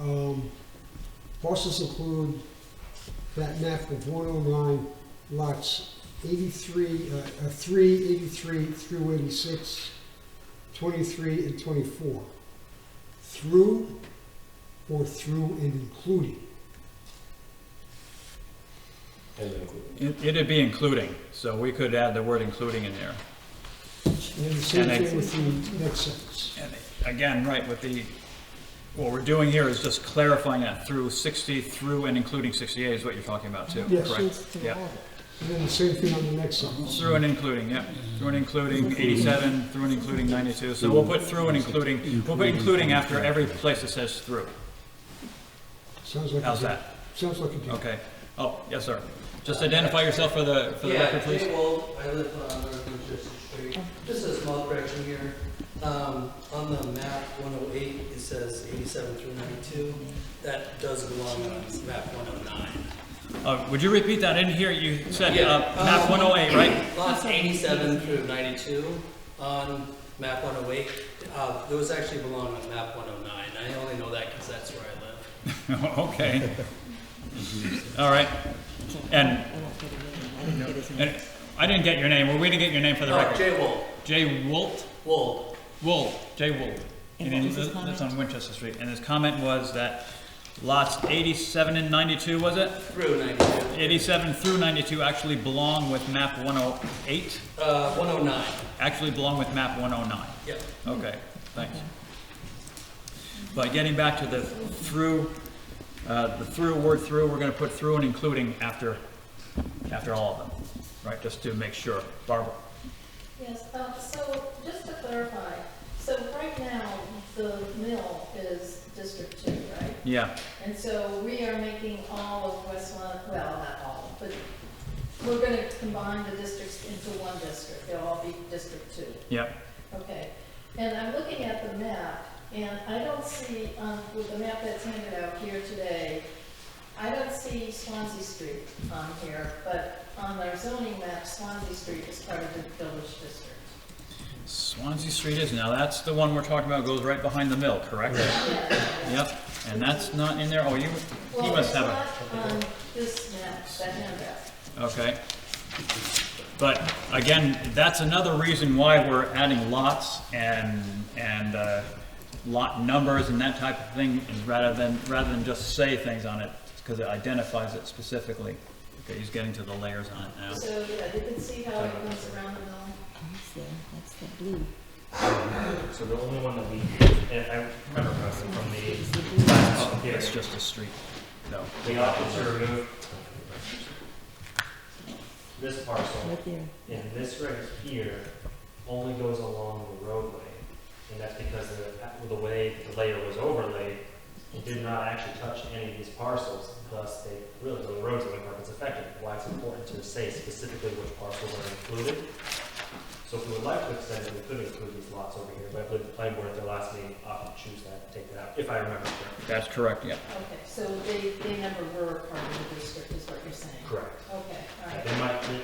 Um, Parcels include that map of one oh nine lots eighty-three, uh, uh, three eighty-three through 86, 23, and twenty-four. Through or through and including. And including. It- It'd be including, so we could add the word including in there. And then the same And I- thing with the next sentence. And again, right, with the, what we're doing here is just clarifying that through 60, through and including 68 is what you're talking about too, Yes. correct? Yeah, And then the same thing on the next sentence. through and including, yeah, through and including 87, through and including 92. So we'll put through and including, we'll put including after every place that says through. Sounds like. a How's deal. that? Sounds like a deal. Okay. Oh, yes, sir. Just identify yourself for the, for the Yeah, record, please. Jay Wolf, I live on North Winchester Street, just a small correction here. Um, on the map one oh eight, it says eighty-seven through ninety-two, that does belong on map one oh nine. Uh, Would you repeat that? I didn't hear you said Yeah, uh, map um, 108, right? Lots eighty-seven through ninety-two on map one oh eight, uh, those actually belong on map one oh nine, I only know that because that's where I live. Okay. All right. And, and I didn't get your name. We're waiting to get your name for the Uh, record. Jay Wolf, Jay Wolt, Wolf. Wolt, Jay Wolt. And And what he was his li- lives comment? on Winchester Street. And his comment was that lots 87 and 92, was it? through ninety-two, 87 through 92 actually belong with map 108, uh, one oh nine, actually belong with map 109. yep. Okay, thanks. But getting back to the through, uh, the through, word through, we're gonna put through and including after, after all of them, right, just to make sure. Barbara? Yes, um, so just to clarify, so right now, the mill is District Two, right? Yeah, And so we are making all of West Lon, well, not all, but we're gonna combine the districts into one district. They'll all be District Two. yeah, Okay, and I'm looking at the map, and I don't see, um, with the map that's handed out here today, I don't see Swansea Street on here, but on our zoning map, Swansea Street is part of the village district. Swansea Street is, now that's the one we're talking about, goes right behind the mill, correct? Yeah. Yep, and that's not in there, oh, you, you Well, must it's have not a, on this map, that handout. okay. But again, that's another reason why we're adding lots and, and uh, lot numbers and that type of thing, is rather than, rather than just say things on it, because it identifies it specifically. Okay, he's getting to the layers on it now. So, yeah, you can see how it goes around the mill. That's the, that's the blue. So the only one that we, and I remember pressing from the last public Oh, It's hearing, just a street, no. we opted to remove this parcel, Right there. and this right here only goes along the roadway. And that's because the, the way the layer was overlaid, it did not actually touch any of these parcels, thus they really, the roads are the it's affected. Why it's important to say specifically which parcels are included. So if we would like to extend it, we could include these lots over here, but I believe the planning board at their last meeting opted to choose that, take that out, if I remember correctly. That's correct, yeah. Okay, so they, they never were part of the district, is what you're saying? Correct. Okay, all right. They might, the-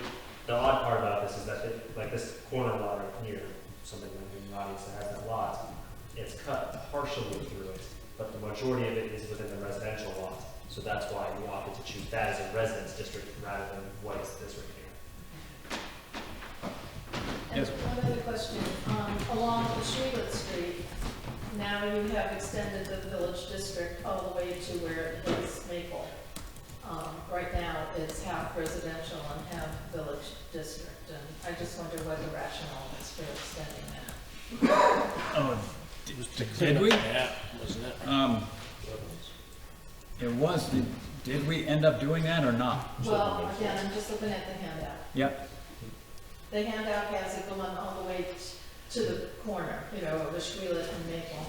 the odd part about this is that, it- like this corner lot right here, something in the audience that has that lot, it's cut partially through it, but the majority of it is within the residential lot. So that's why we opted to choose that as a residence district rather than what is this right here. And Yes. one other question, um, along Shulet Street, now you have extended the village district all the way to where it hits Maple. Um, right now, it's half residential and half village district, and I just wonder what the rationale is for extending that. Oh, d- did we? wasn't it? Um, It was, did- did we end up doing that or not? Well, again, I'm just looking at the handout. Yep, The handout has it going all the way t- to the corner, you know, of the Shulet and Maple.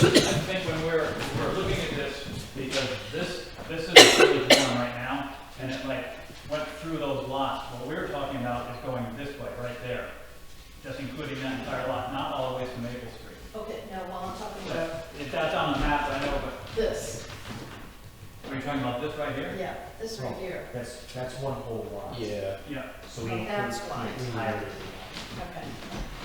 I think when we're, we're looking at this, because this, this is really one right now, and it like went through those lots, what we're talking about is going this way, right there, just including that entire lot, not all the way to Maple Street. Okay, now while I'm talking about So, if that's on the map, I know, this, but are you talking about this right here? yeah, this right here. That's, that's one whole lot. Yeah. Yeah, So we Oh, include that's the why. entirety. Okay,